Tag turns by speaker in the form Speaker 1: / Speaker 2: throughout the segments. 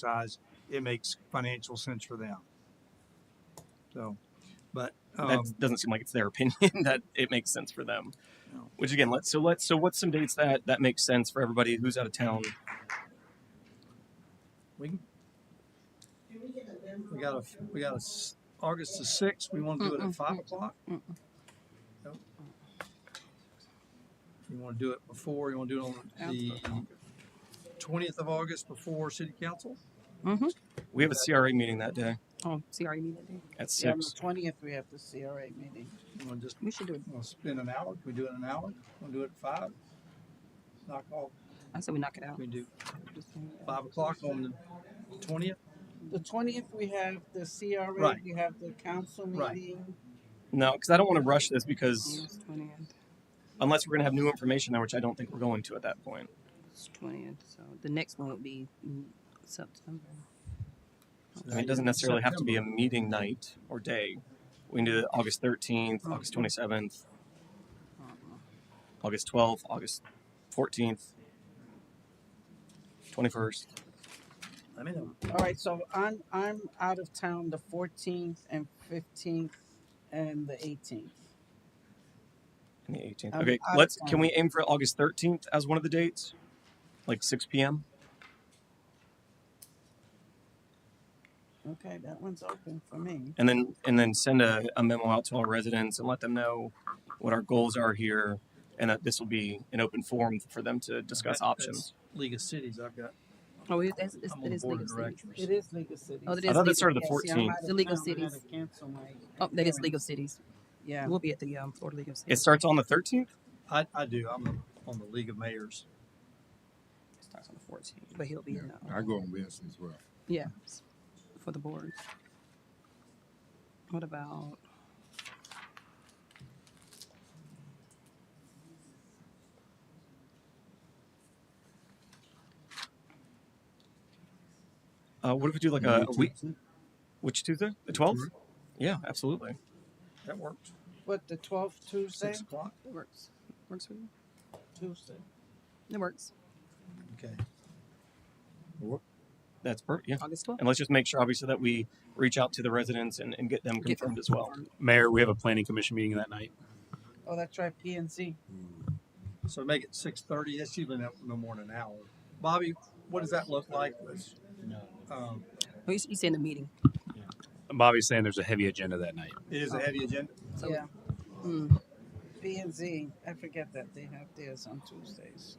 Speaker 1: size, it makes financial sense for them. So, but,
Speaker 2: that
Speaker 1: um,
Speaker 2: doesn't seem like it's their opinion that it makes sense for them.
Speaker 1: No.
Speaker 2: Which again, let's so let's so what's some dates that that makes sense for everybody who's out of town?
Speaker 1: we, we got a, we got a, s- August the sixth, we want to do it at five o'clock?
Speaker 3: Mm-mm.
Speaker 1: Nope. You want to do it before, you want to do it on the twentieth of August before city council?
Speaker 3: Mm-hmm.
Speaker 2: We have a CRA meeting that day
Speaker 3: Oh, CRA meeting that day.
Speaker 2: at
Speaker 4: Yeah, on the
Speaker 2: six.
Speaker 4: twentieth, we have the CRA meeting.
Speaker 1: You want to just,
Speaker 3: We should do it.
Speaker 1: want to spend an hour? Can we do it in an hour? Want to do it at five? Knock off,
Speaker 3: I said we knock it out.
Speaker 1: we do five o'clock on the twentieth?
Speaker 3: Mm-hmm.
Speaker 4: The twentieth, we have the CRA,
Speaker 1: Right.
Speaker 4: we have the council
Speaker 1: Right.
Speaker 4: meeting.
Speaker 2: No, because I don't want to rush this because
Speaker 3: August 20th.
Speaker 2: unless we're going to have new information, now, which I don't think we're going to at that point.
Speaker 3: It's 20th. So the next one would be mm, September.
Speaker 2: I mean, it doesn't necessarily have to be a meeting night or day. We can do it August thirteenth,
Speaker 1: Oh.
Speaker 2: August twenty seventh,
Speaker 1: Uh-huh.
Speaker 2: August twelfth, August fourteenth, twenty first.
Speaker 1: Let me know.
Speaker 4: All right, so I'm, I'm out of town the fourteenth and fifteenth and the eighteenth.
Speaker 2: And the 18th.
Speaker 4: Um,
Speaker 2: Okay,
Speaker 4: I-
Speaker 2: let's. Can we aim for August 13th as one of the dates, like 6 p.m.?
Speaker 4: Okay, that one's open for me.
Speaker 2: And then and then send a, a memo out to our residents and let them know what our goals are here, and that this will be an open forum for them to discuss
Speaker 1: That-
Speaker 2: options.
Speaker 1: that's League of Cities, I've got.
Speaker 3: Oh, it, that's, it's,
Speaker 1: I'm
Speaker 3: it
Speaker 1: on
Speaker 3: is
Speaker 1: board
Speaker 3: League
Speaker 1: of
Speaker 3: of Cities.
Speaker 4: It
Speaker 1: directors.
Speaker 4: is Legal Cities.
Speaker 3: Oh, that
Speaker 2: I thought
Speaker 3: is
Speaker 2: that
Speaker 3: legal-
Speaker 2: started the
Speaker 4: Yeah, see, I'm
Speaker 2: 14th.
Speaker 4: out of
Speaker 3: The League of
Speaker 4: town. I had to
Speaker 3: Cities.
Speaker 4: cancel my
Speaker 3: Oh, that is
Speaker 4: hearing.
Speaker 3: League of Cities.
Speaker 4: Yeah,
Speaker 3: We'll be at the um, Florida League of
Speaker 2: It
Speaker 3: Cities.
Speaker 2: starts on the 13th.
Speaker 1: I, I do, I'm on the League of Mayors.
Speaker 3: It starts on the 14th, but he'll be
Speaker 5: Yeah,
Speaker 3: in.
Speaker 5: I
Speaker 3: Uh,
Speaker 5: go on Wednesday as well.
Speaker 3: yeah, s- for the board. What about?
Speaker 2: Uh, what if we do like a, a week? Which Tuesday? The 12th?
Speaker 5: Mhm.
Speaker 3: Mm-hmm.
Speaker 2: Yeah, absolutely.
Speaker 1: That works.
Speaker 4: what, the twelfth, Tuesday?
Speaker 1: Six o'clock?
Speaker 3: It works. Works for you.
Speaker 4: Tuesday.
Speaker 3: It works.
Speaker 1: Okay.
Speaker 2: That's perfect. Yeah.
Speaker 3: August 12th.
Speaker 2: And let's just make sure, obviously, that we reach out to the residents and, and get them
Speaker 3: Get them
Speaker 2: confirmed as well.
Speaker 3: confirmed.
Speaker 6: Mayor, we have a planning commission meeting that night.
Speaker 4: Oh, that's right, P and Z.
Speaker 1: So make it six thirty, that's usually no, no more than an hour. Bobby, what does that look like? Um,
Speaker 3: Oh, you, you said in the meeting.
Speaker 6: Bobby's saying there's a heavy agenda that night.
Speaker 1: it is a heavy agenda.
Speaker 3: So,
Speaker 4: Yeah,
Speaker 3: mm,
Speaker 4: P and Z. I forget that they have theirs on Tuesdays.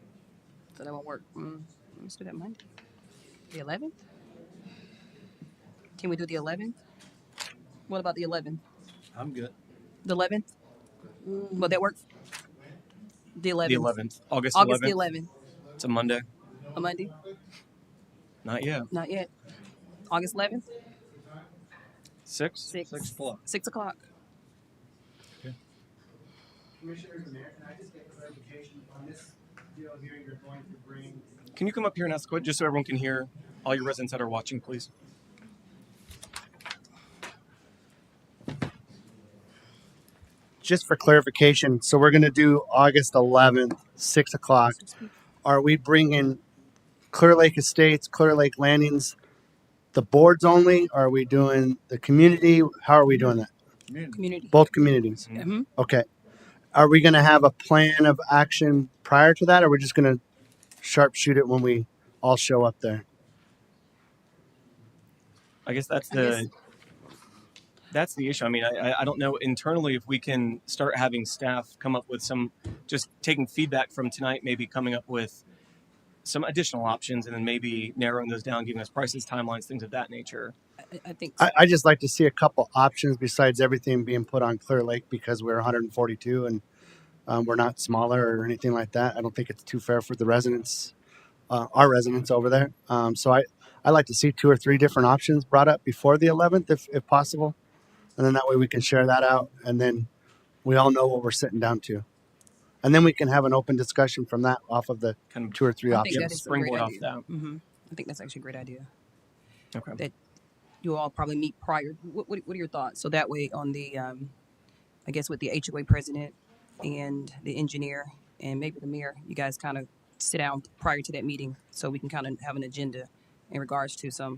Speaker 3: so that won't work. Mm, let's do that Monday. The 11th? Can we do the 11th? What about the 11th?
Speaker 1: I'm good.
Speaker 3: The 11th? Will that work? The 11th.
Speaker 2: The 11th, August,
Speaker 3: August
Speaker 2: 11th.
Speaker 3: the 11th.
Speaker 2: It's a Monday.
Speaker 3: A Monday?
Speaker 2: Not yet.
Speaker 3: Not yet. August 11th?
Speaker 2: Six.
Speaker 3: 6.
Speaker 1: Six o'clock.
Speaker 3: 6 o'clock.
Speaker 7: Commissioners Mayor, can I just get clarification on this deal here you're going to bring?
Speaker 2: Can you come up here and ask a question, just so everyone can hear? All your residents that are watching, please.
Speaker 7: Just for clarification, so we're gonna do August eleventh, six o'clock. Are we bringing Clear Lake Estates, Clear Lake Landings, the boards only? Are we doing the community? How are we doing that?
Speaker 1: Community.
Speaker 3: Community.
Speaker 7: Both communities?
Speaker 3: Mhm.
Speaker 7: Okay. Are we gonna have a plan of action prior to that, or we're just gonna sharpshoot it when we all show up there?
Speaker 2: I guess that's
Speaker 3: I
Speaker 2: the that's the issue. I mean, I, I- I don't know internally if we can start having staff come up with some, just taking feedback from tonight, maybe coming up with some additional options, and then maybe narrowing those down, giving us prices, timelines, things of that nature.
Speaker 3: I, I think
Speaker 7: I, I just like to see a couple options besides everything being put on Clear Lake because we're 142 and um, we're not smaller or anything like that. I don't think it's too fair for the residents, uh, our residents over there. Um, so I, I like to see two or three different options brought up before the 11th, if, if possible, and then that way we can share that out, and then we all know what we're sitting down to, and then we can have an open discussion from that off of the
Speaker 2: Kind of
Speaker 7: two or three
Speaker 3: I think that
Speaker 7: options.
Speaker 3: is a great
Speaker 2: springboard off
Speaker 3: idea.
Speaker 2: that.
Speaker 3: hmm I think that's actually a great idea.
Speaker 2: Okay.
Speaker 3: you all probably meet prior. What, what, what are your thoughts? So that way, on the, um, I guess with the HOA president and the engineer and maybe the mayor, you guys kind of sit down prior to that meeting so we can kind of have an agenda in regards to some